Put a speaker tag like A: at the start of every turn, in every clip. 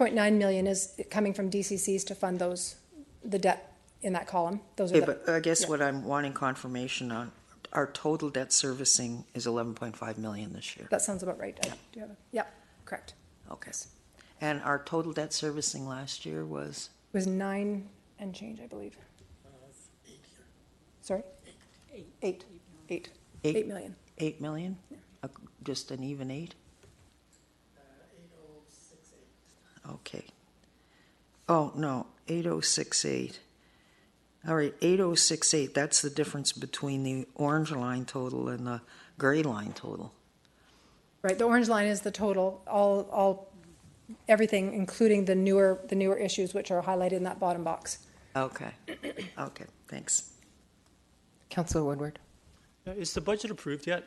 A: 3.9 million is coming from DCCs to fund those, the debt in that column. Those are
B: Okay,
A: the,
B: but uh, I guess
A: yeah.
B: what I'm wanting confirmation on, our total debt servicing is eleven point five million this year.
A: that sounds about right. I do have, a- yeah, correct.
B: Okay. And our total debt servicing last year was,
A: It was nine and change, I believe. Sorry? Eight. Eight.
B: Eight.
A: Eight million.
B: Eight million? Uh, Just an even eight?
A: Uh, oh
B: Eight oh six eight. Okay. Oh, no, eight oh six eight. All right, eight oh six eight, that's the difference between the orange line total and the gray line total.
A: Right, the orange line is the total, all, all, everything, including the newer, the newer issues which are highlighted in that bottom box.
B: Okay, okay, thanks.
C: Councillor Woodward.
D: Uh, Is the budget approved yet?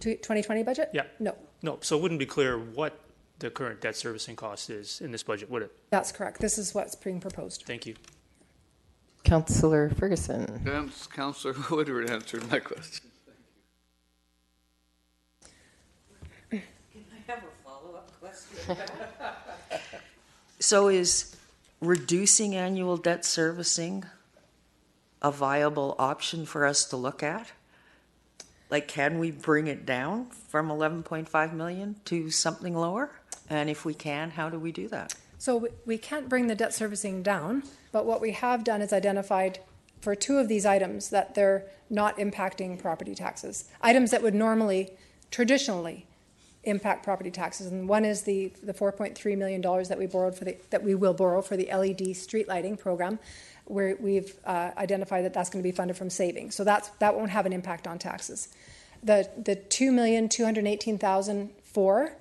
A: Tw- 2020 budget?
D: Yeah.
A: No,
D: No, so it wouldn't be clear what the current debt servicing cost is in this budget, would it?
A: that's correct. This is what's being proposed.
D: Thank you.
C: Councillor Ferguson.
E: Couns- Councillor Woodward answered my question.
F: I have a follow-up question.
B: So is reducing annual debt servicing a viable option for us to look at? Like, can we bring it down from 11.5 million to something lower? And if we can, how do we do that?
A: So we- we can't bring the debt servicing down, but what we have done is identified for two of these items that they're not impacting property taxes. Items that would normally, traditionally, impact property taxes. And one is the, the $4.3 million that we borrowed for the, that we will borrow for the LED street lighting program, where we've uh, identified that that's going to be funded from savings. So that's, that won't have an impact on taxes. The, the $2,218,004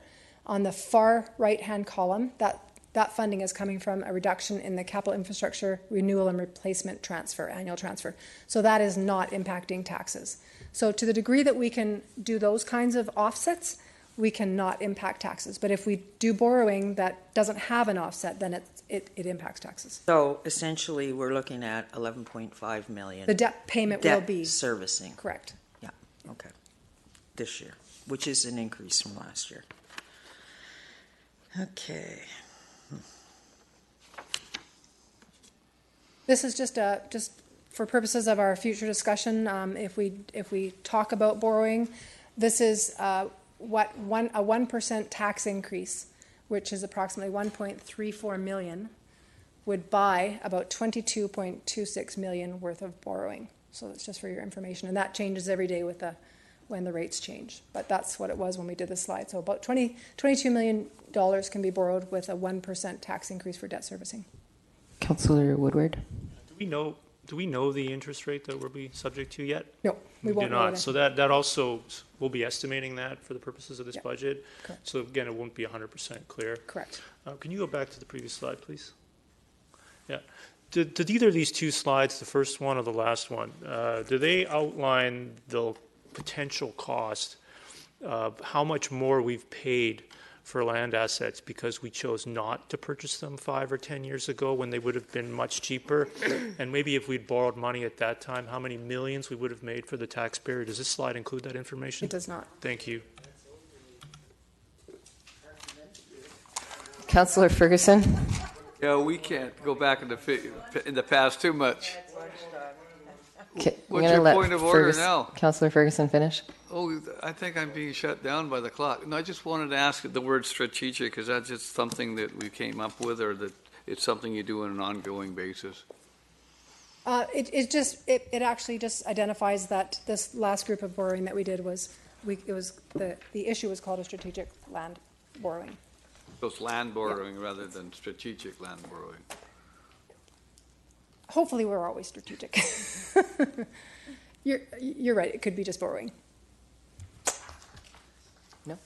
A: on the far right-hand column, that, that funding is coming from a reduction in the capital infrastructure renewal and replacement transfer, annual transfer. So that is not impacting taxes. So to the degree that we can do those kinds of offsets, we cannot impact taxes. But if we do borrowing that doesn't have an offset, then it, it, it impacts taxes.
B: So essentially, we're looking at 11.5 million.
A: The debt payment will
B: debt
A: be,
B: servicing.
A: correct.
B: Yeah, okay. This year, which is an increase from last year. Okay.
A: This is just a, just for purposes of our future discussion, um, if we, if we talk about borrowing, this is, uh, what, one, a one percent tax increase, which is approximately one point three four million, would buy about twenty-two point two six million worth of borrowing. So that's just for your information, and that changes every day with the, when the rates change. But that's what it was when we did the slide, so about twenty, twenty-two million dollars can be borrowed with a one percent tax increase for debt servicing.
C: Councillor Woodward.
D: Do we know, do we know the interest rate that we'll be subject to yet?
A: No, we
D: do
A: won't know
D: not.
A: that.
D: So that, that also, we'll be estimating that for the purposes of this
A: Yeah.
D: budget.
A: Correct.
D: So again, it won't be hundred percent clear.
A: Correct.
D: Uh, Can you go back to the previous slide, please? Yeah. Did, did either of these two slides, the first one or the last one, uh, do they outline the potential cost of how much more we've paid for land assets because we chose not to purchase them five or 10 years ago when they would have been much cheaper? And maybe if we'd borrowed money at that time, how many millions we would have made for the taxpayer? Does this slide include that information?
A: It does not.
D: Thank you.
C: Councillor Ferguson.
E: Yeah, we can't go back in the, fi- in the past too much.
C: Okay, I'm
E: What's
C: gonna
E: your
C: let
E: point of order
C: Fergus-
E: now?
C: Councillor Ferguson finish.
E: Oh, I think I'm being shut down by the clock. No, I just wanted to ask the word strategic, is that just something that we came up with or that it's something you do on an ongoing basis?
A: Uh, it, it just, it, it actually just identifies that this last group of borrowing that we did was, we, it was, the, the issue was called a strategic land borrowing.
E: So it's land borrowing rather than strategic land borrowing.
A: Hopefully, we're always strategic. You're, you're right, it could be just borrowing.
C: No.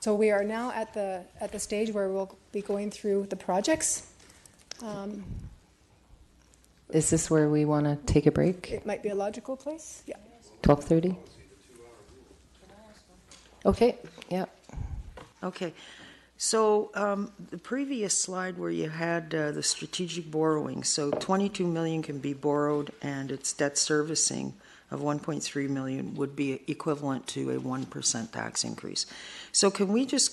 A: So we are now at the, at the stage where we'll be going through the projects. Um,
C: Is this where we want to take a break?
A: It might be a logical place, yeah.
C: 12:30? Okay, yeah.
B: Okay, so um, the previous slide where you had uh, the strategic borrowing, so 22 million can be borrowed and it's debt servicing of 1.3 million would be equivalent to a 1% tax increase. So can we just go